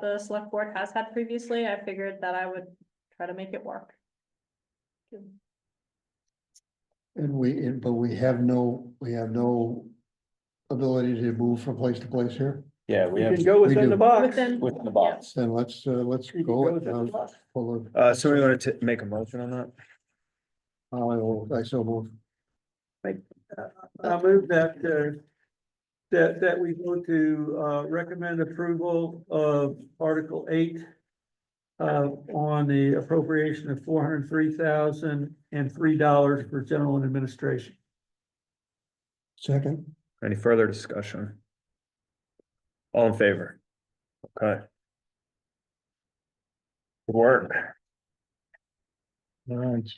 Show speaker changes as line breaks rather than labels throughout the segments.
the select board has had previously, I figured that I would try to make it work.
And we, and- but we have no, we have no ability to move from place to place here.
Yeah, we
You
have
can go
we
within the
do.
box.
Within,
within the box.
Then let's, uh, let's
You can
go.
go
with
within the
those
box.
full of-
Uh, so we want to make a motion on that?
I will, I so move.
I move that, uh, that, that we go to, uh, recommend approval of Article eight uh, on the appropriation of four hundred three thousand and three dollars for general and administration.
Second,
Any further discussion? All in favor? Okay. Good Work.
all right.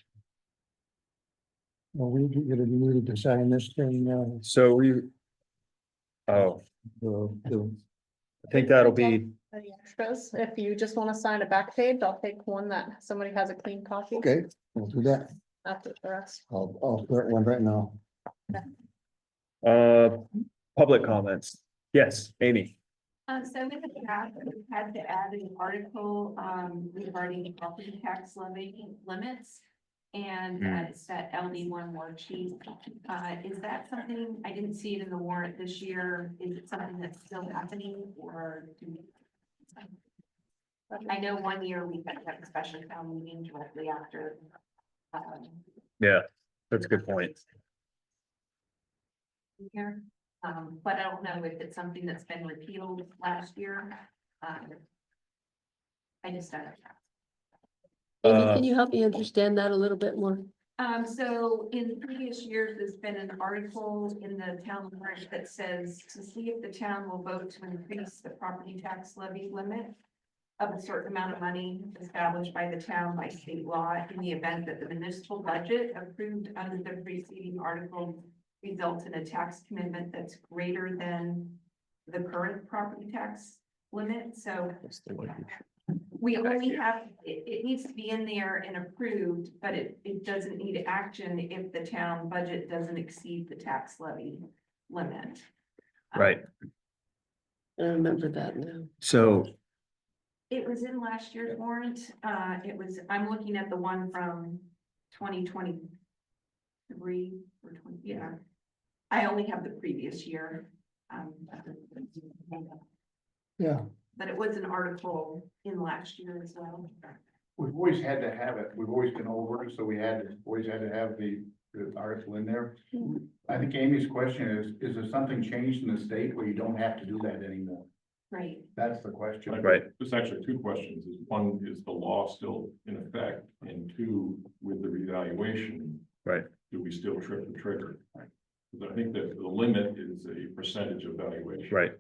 Well, we get to need to sign this thing, uh,
So we. Oh,
the- the-
I think that'll be,
any extras, if you just wanna sign a back page, I'll take one that somebody has a clean copy.
okay, we'll do that.
After the rest.
I'll, I'll start one right now.
uh, public comments. Yes, Amy.
Um, so with the draft, we had to add an article, um, regarding property tax levy limits. And uh, it's that LD one worksheet. Uh, is that something, I didn't see it in the warrant this year. Is it something that's still happening or? do we- I know one year we had that special town meeting directly after. um,
Yeah, that's a good point.
Here, um, but I don't know if it's something that's been repealed last year. Um, I just don't. know.
Amy,
Uh,
can you help me understand that a little bit more?
Um, so in previous years, there's been an article in the town warrant that says to see if the town will vote to increase the property tax levy limit. Of a certain amount of money established by the town by state law in the event that the municipal budget approved under the preceding article. Results in a tax commitment that's greater than the current property tax limit, so. We only have, it, it needs to be in there and approved, but it, it doesn't need action if the town budget doesn't exceed the tax levy limit. Um,
Right.
I remember that now.
So,
It was in last year's warrant, uh, it was, I'm looking at the one from twenty twenty-three or twenty, yeah. I only have the previous year. um,
Yeah,
But it was an article in last year as well.
We've always had to have it, we've always been over, it, so we had, to- always had to have the, the article in there. I think Amy's question is, is there something changed in the state where you don't have to do that anymore?
Right.
That's the question.
right,
There's actually two questions, is one, is the law still in effect, and two, with the revaluation.
Right.
Do we still trip the trigger? Because I think that the limit is a percentage of valuation.
right.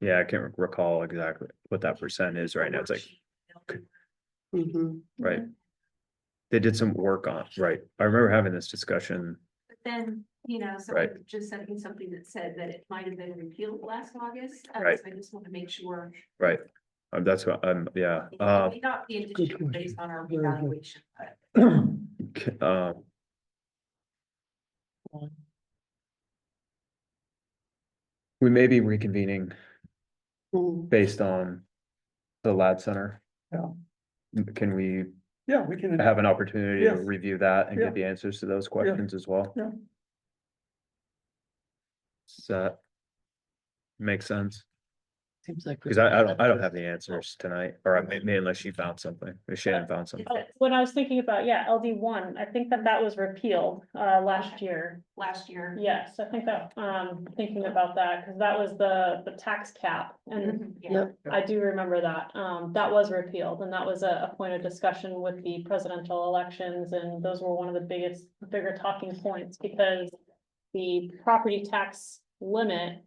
Yeah, I can't recall exactly what that percent is right now. It's like,
Mhm.
right. They did some work on, right. I remember having this discussion.
But then, you know, someone just sent me something that said that it might have been repealed last August. uh,
Right.
so I just want to make sure.
Right, um, that's what, um, yeah,
it
uh,
may Not be an
good
issue based on our
Very good.
evaluation, but
c- um. We may be reconvening
Mm.
based on the lab center.
Yeah.
Can we
Yeah, we can.
have an opportunity to
Yes.
review that and
Yeah.
get the answers to those questions as well?
Yeah.
Does that make sense?
Seems like. we-
Cause I, I don't, I don't have the answers tonight, or I may- may unless you found something, if Shannon found something.
Oh, When I was thinking about, yeah, LD one, I think that that was repealed, uh, last year.
last year.
Yes, I think that, um, thinking about that, because that was the, the tax cap, and
Mhm, yeah.
Yep.
I do remember that, um, that was repealed, and that was a, a point of discussion with the presidential elections, and those were one of the biggest, bigger talking points, because the property tax limit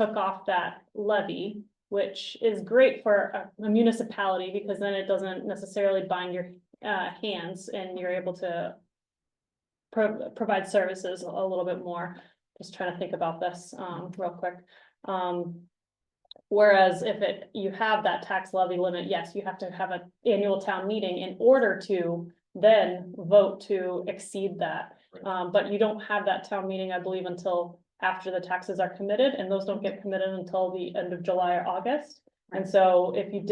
took off that levy, which is great for a a municipality, because then it doesn't necessarily bind your, uh, hands, and you're able to pro- provide services a little bit more, just trying to think about this, um, real quick, um, Whereas if it, you have that tax levy limit, yes, you have to have an annual town meeting in order to then vote to exceed that.
Right.
Um, but you don't have that town meeting, I believe, until after the taxes are committed, and those don't get committed until the end of July or August. And so if you